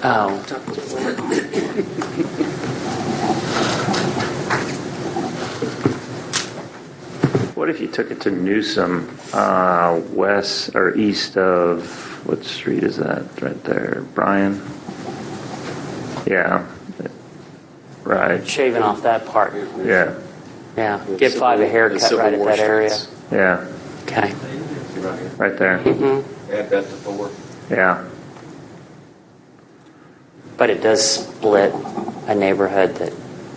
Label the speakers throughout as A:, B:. A: Oh.
B: What if you took it to Newsom, uh, west or east of, what street is that right there? Brian? Yeah. Right.
A: Shaving off that part,
B: Yeah.
A: yeah. Give five a haircut right at that area.
B: Yeah.
A: Okay.
B: Right there.
A: Mm-hmm.
C: Add that to four.
B: Yeah.
A: But it does split a neighborhood that,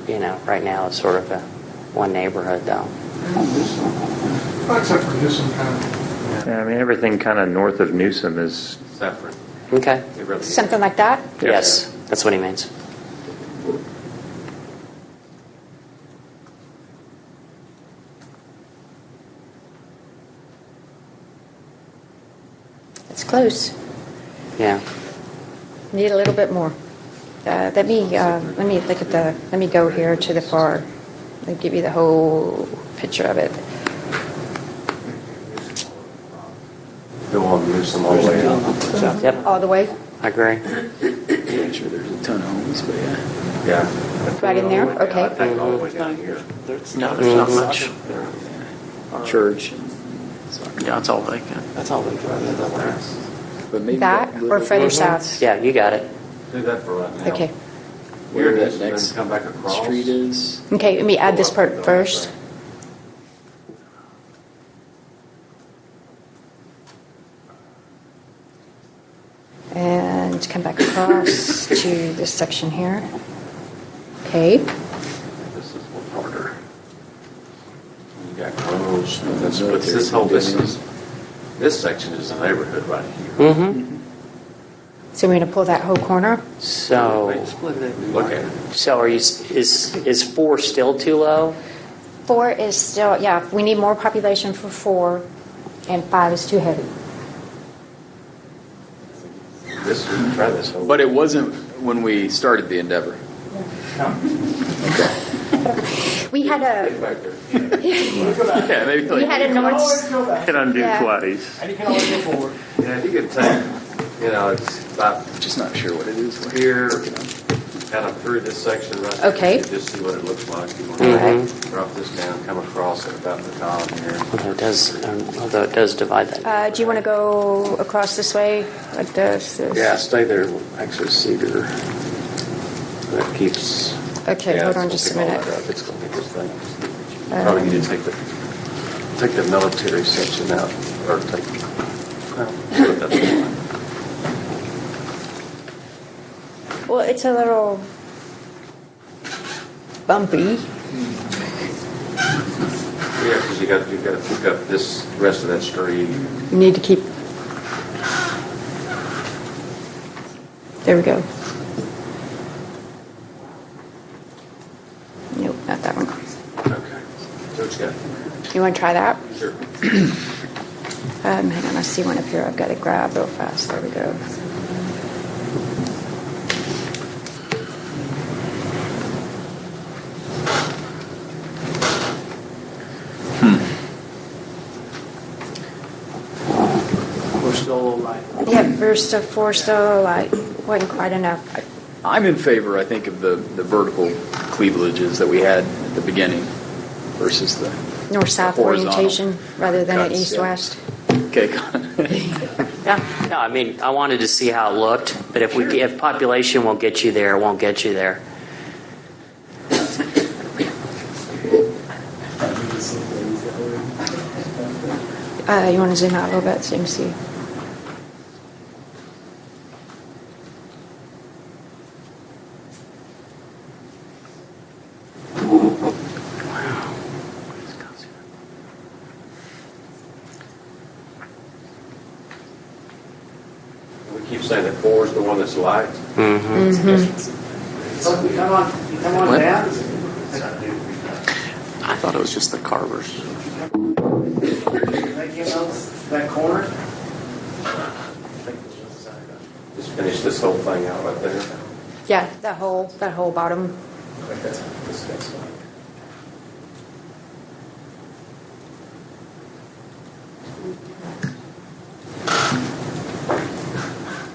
A: you know, right now is sort of a one neighborhood though.
D: Except for Newsom County.
B: Yeah, I mean, everything kind of north of Newsom is,
C: Separate.
A: Okay.
C: It really is.
E: Something like that?
A: Yes, that's what he means.
E: It's close.
A: Yeah.
E: Need a little bit more. Uh, Let me, uh, let me look at the, let me go here to the far, let me give you the whole picture of it.
C: Go on, move some all the way up.
A: Yep.
E: All the way,
A: I agree.
F: Yeah, sure, there's a ton of homes, but yeah.
C: Yeah.
E: right in there?
C: I
E: Okay.
C: think all the way down here.
F: There's
G: No,
A: Mm-hmm.
G: there's not much.
F: Church. and-
G: Yeah, it's all vacant.
F: That's all they got. But maybe
E: That or
F: little-
E: further south?
A: Yeah, you got it.
C: Do that for right now.
E: Okay.
F: Where
C: Here it
F: that
C: is, then
F: next
C: come back across.
F: street is.
E: Okay, let me add this part first. And come back across to this section here. Okay,
C: This is harder. You got groves,
F: And
C: that's,
F: the
C: but this whole, this
F: military.
C: is, this section is a neighborhood right here.
A: Mm-hmm.
E: so we're gonna pull that whole corner?
A: So,
C: Look at it.
A: so are you, s- is, is four still too low?
E: Four is still, yeah, we need more population for four, and five is too heavy.
C: This, try this whole.
F: But it wasn't when we started the endeavor.
E: We had a,
C: Back there.
F: Yeah, maybe
E: we had a north,
D: go back.
B: can undo
E: Yeah.
B: twice.
D: And you can always go forward.
C: Yeah, if you could take, you know, it's about
F: Just not sure what it is.
C: here, kind of through this section right here.
E: Okay.
C: You Just see what it looks like. You want
A: Mhm.
C: to drop this down, come across at about the top here.
A: Although it does, um, although it does divide that.
E: uh, do you want to go across this way, like this? this?
C: Yeah, stay there, actually Cedar. That keeps.
E: Okay,
C: Yeah,
E: hold on
C: it's
E: just a
C: gonna pick all
E: minute.
C: that up. It's gonna be this thing.
E: Um,
C: Probably need to take the, take the military section out, or take. well, that's fine.
E: Well, it's a little bumpy.
C: Yeah, because you got, you got to pick up this rest of that street.
E: You need to keep. There we go. Nope, not that one.
C: Okay. So it's got,
E: You want to try that?
C: sure.
E: Um, hang on, I see one up here I've got to grab real fast. There we go.
F: Hmm.
G: We're still alive.
E: Yeah, we're still, four still like, wasn't quite enough. uh,
F: I'm in favor, I think, of the, the vertical cleavages that we had at the beginning versus the.
E: North-south
F: the horizontal
E: orientation rather than an
F: cuts, yeah.
E: east-west.
F: Okay, Con.
A: Yeah, no, I mean, I wanted to see how it looked, but if we, if population will get you there, it won't get you there.
E: Uh, you want to zoom out a little bit so you can see?
C: We keep saying that four is the one that's light.
A: Mm-hmm.
G: Come on, come on
F: What?
G: down.
F: I thought it was just the carvers.
G: That, you know, that corner.
C: Just finish this whole thing out right there.
E: Yeah, that whole, that whole bottom.
C: This next one.